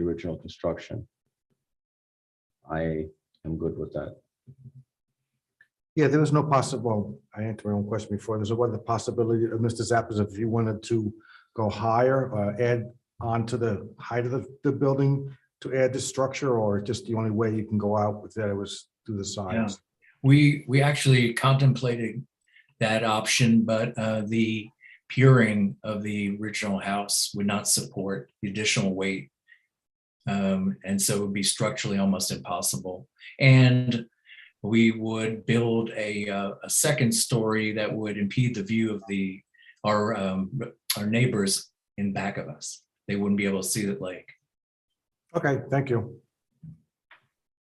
original construction. I am good with that. Yeah, there was no possible, I answered my own question before, there's a what the possibility of Mr. Zappas, if you wanted to go higher, uh, add on to the height of the, the building to add the structure, or just the only way you can go out with that was through the sides? We, we actually contemplated that option, but uh, the puring of the original house would not support the additional weight. Um, And so it would be structurally almost impossible. And we would build a, uh, a second story that would impede the view of the, our, um, our neighbors in back of us. They wouldn't be able to see the lake. Okay, thank you.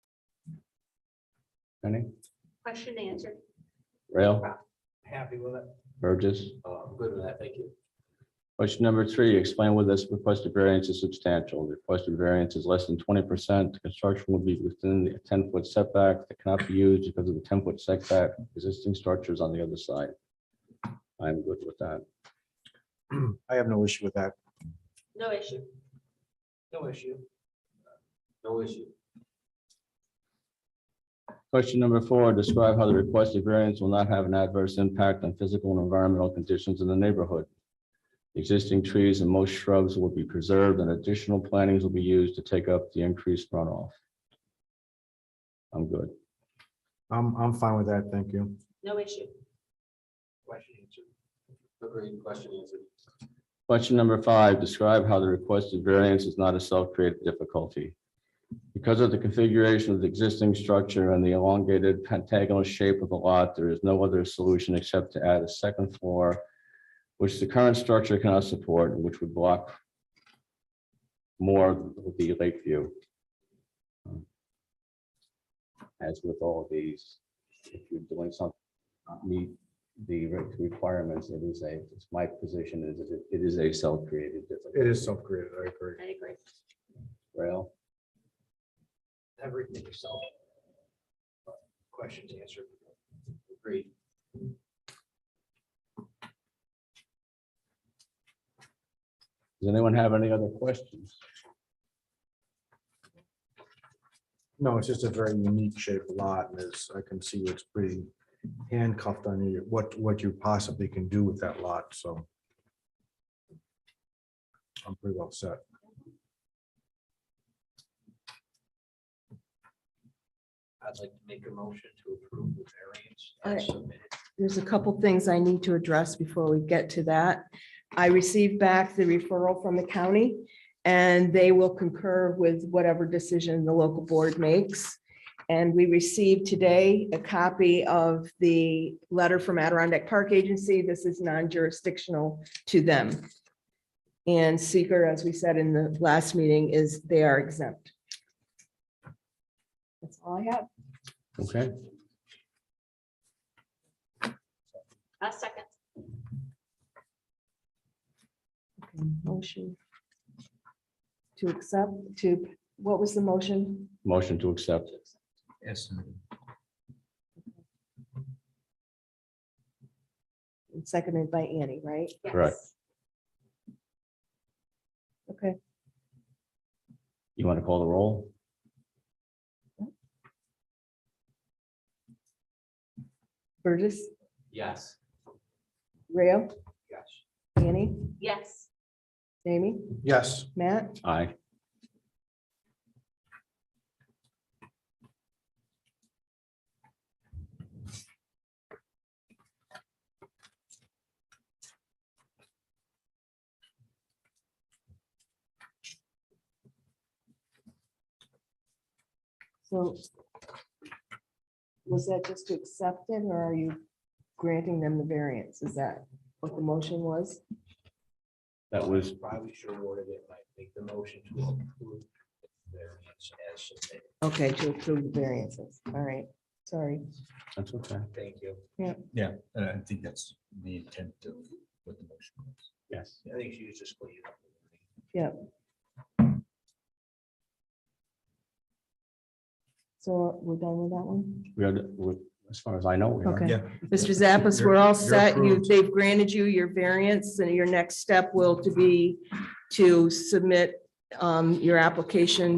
Penny, Question answered. Rail, happy with it. Burgess. Oh, I'm good with that, thank you. Question number three, explain whether this requested variance is substantial. The requested variance is less than twenty percent. Construction will be within the ten-foot setback that cannot be used because of the ten-foot setback, existing structures on the other side. I'm good with that. I have no issue with that. No issue. No issue. No issue. Question number four, describe how the requested variance will not have an adverse impact on physical and environmental conditions in the neighborhood. Existing trees and most shrubs will be preserved and additional plantings will be used to take up the increased runoff. I'm good. I'm, I'm fine with that, thank you. No issue. Question answered. Agreed, question answered. Question number five, describe how the requested variance is not a self-created difficulty. Because of the configuration of the existing structure and the elongated pentagonal shape of the lot, there is no other solution except to add a second floor, which the current structure cannot support, and which would block more of the lake view. As with all of these, if you're doing something, not meet the re- requirements, it is a, it's my position is that it is a self-created difficulty. It is self-created, I agree. I agree. Rail, Everything yourself. Questions answered. Agreed. does anyone have any other questions? No, it's just a very unique shaped lot, and as I can see, it's pretty handcuffed on you, what, what you possibly can do with that lot, so. I'm pretty well set. I'd like to make a motion to approve the variance All right. as submitted. There's a couple things I need to address before we get to that. I received back the referral from the county and they will concur with whatever decision the local board makes. And we received today a copy of the letter from Adirondack Park Agency. This is non-jurisdictional to them. And seeker, as we said in the last meeting, is they are exempt. That's all I have. Okay, A Uh, second. Okay, Motion to accept, to, what was the motion? motion to accept. Yes. Seconded by Annie, right? Yes. Correct. Okay, You want to call the roll? Burgess, Yes. Rayo, Yes. Annie, Yes. Jamie, Yes, Matt, Aye. so. Was that just to accept it, or are you granting them the variance? Is that what the motion was? That was, Probably should have worded it like make the motion to approve the variance as submitted. Okay, to approve the variances, all right, sorry. that's okay. Thank you. Yeah, and I think that's the intent of what the motion was. Yes. I think she was just cleaning up. So we're done with that one? We are, we- as far as I know, we are. Okay, Yeah. Mr. Zappas, we're You're- all you're set. You, approved. they've granted you your variance and your next step will to be to submit um, your application